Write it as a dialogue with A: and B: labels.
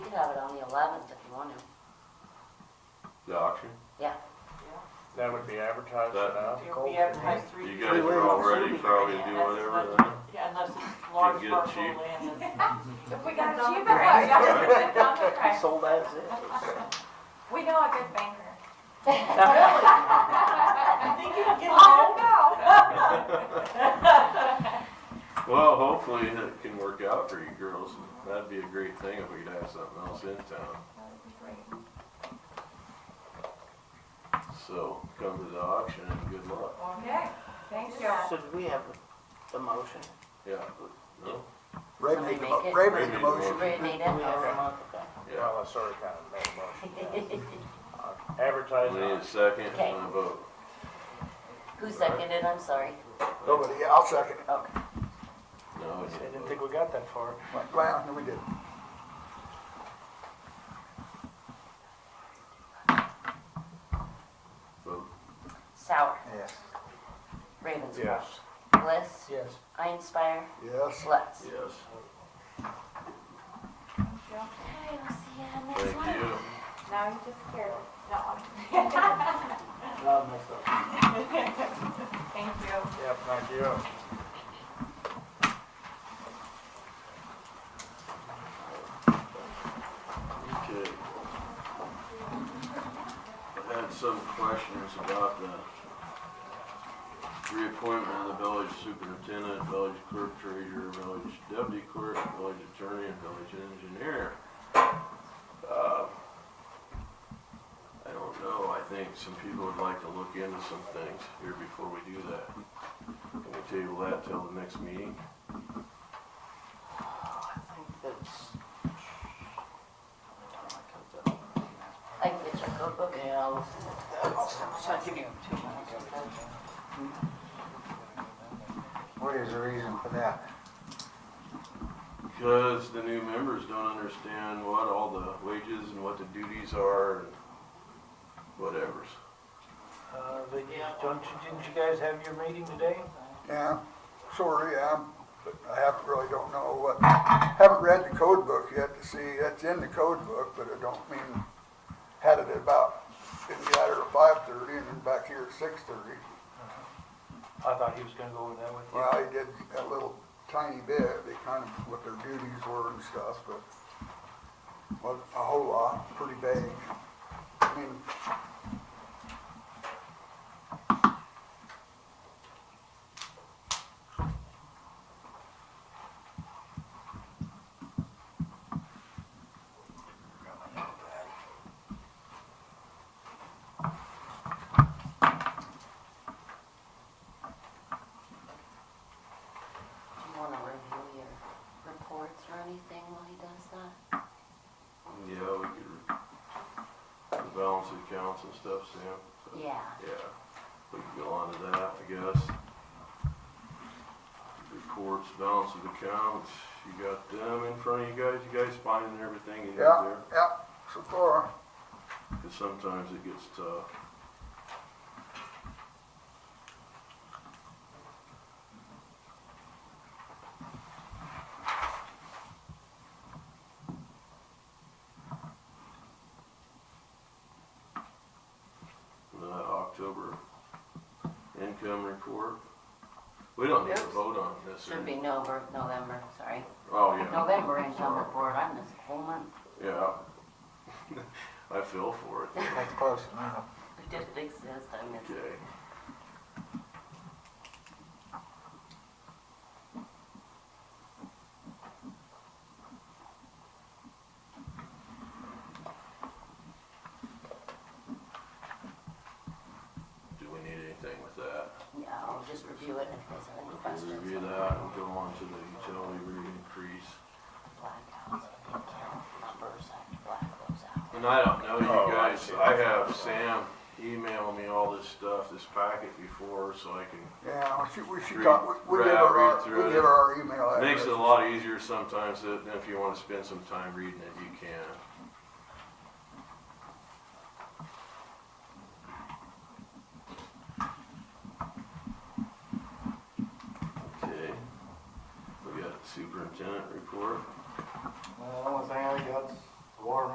A: could have it on the eleventh if you want to.
B: The auction?
A: Yeah,
C: That would be advertised
B: That-
C: now?
D: If we advertise three.
B: You
D: three
B: guys are
D: ways.
B: all ready for all you do
D: Unless it's-
B: whatever then?
D: Yeah, unless it's large
B: get it
D: parcel
B: cheap.
D: land. that's-
E: If we got a
F: It's on the
E: cheaper
F: price.
E: price, it's on the price.
G: Sold as is.
E: We know a good banker.
D: I think you'll get
E: Oh,
D: it.
E: no.
B: Well, hopefully it can work out for you girls. That'd be a great thing if we could have something else in town.
E: That would be great.
B: So come to the auction and good luck.
E: Okay, thank you.
G: Should we have the motion?
B: Yeah. No?
F: Ray
A: Somebody
F: made the,
A: make
F: mo-
A: it.
F: Ray made
B: Ray
F: the
B: made the
F: motion.
A: Ray made
G: Do we
A: it.
G: have a motion? Okay.
B: Yeah.
C: Well, I sort of kind of made a motion.
B: We need a
C: Advertising.
B: second and a vote.
A: Who seconded, I'm sorry.
F: Nobody, yeah, I'll second it.
B: No,
C: I
B: we
C: didn't
B: didn't.
C: think we got that far.
F: Like, Well, no, we didn't.
B: Vote.
A: Sour,
F: Yes.
A: Ravenscroft,
C: Yes.
A: Bliss,
G: Yes.
A: Einspire,
F: Yes.
A: Lutz.
B: Yes.
A: Okay, we'll see you on next
B: Thank
A: one.
B: you.
E: Now you just scared. No.
G: Not myself.
E: Thank you.
C: Yep, thank you.
B: Okay. I had some questions about the reappointment of the village superintendent, village clerk treasurer, village deputy clerk, village attorney, and village engineer. Uh, I don't know, I think some people would like to look into some things here before we do that. Can we table that till the next meeting?
G: Oh, I think that's.
A: I can get your cookbook.
G: Yeah, I'll, I'll give you two minutes.
F: What is the reason for that?
B: Because the new members don't understand what all the wages and what the duties are and whatevers.
C: Uh, but don't you, didn't you guys have your meeting today?
F: Yeah, sorry, um, but I haven't, really don't know what, haven't read the code book yet to see, that's in the code book, but I don't mean, had it at about, didn't get out here at five thirty and then back here at six thirty.
C: I thought he was gonna go over that with you.
F: Well, I did a little tiny bit, they kind of, what their duties were and stuff, but wasn't a whole lot, pretty vague. I mean,
A: Do you want to review your reports or anything while he does that?
B: Yeah, we could, the balance of accounts and stuff, Sam. so,
A: Yeah,
B: Yeah, we could go on to that, I guess. Reports, balance of accounts, you got them in front of you guys, you guys finding everything you got
F: yeah,
B: there?
F: yeah, so far,
B: Because sometimes it gets tough. The October income report. We don't need to
A: Oops.
B: vote on this.
A: should
B: or-
A: be November, November, sorry.
B: Oh, yeah,
A: November income report, I missed a whole month.
B: yeah. I feel for it.
F: that's close enough.
A: It didn't exist, I missed it.
B: Okay. Do we need anything with that?
A: Yeah, I'll just review it if there's any
B: Let's
A: questions.
B: review that and go on to the utility rate increase.
A: Blackouts, I can count numbers, I can black those out.
B: And I don't know
C: Oh,
B: you
C: I
B: guys,
C: see.
B: I have Sam email me all this stuff, this packet before, so I can
F: Yeah, we should, we should
B: Read-
F: talk, we- we give
B: read-
F: her
B: read
F: our,
B: through
F: we
B: it.
F: give her our email
B: Makes
F: address.
B: it a lot easier sometimes than than if you want to spend some time reading it, you can. Okay, we got superintendent report.
G: Well, the only thing I got's
F: water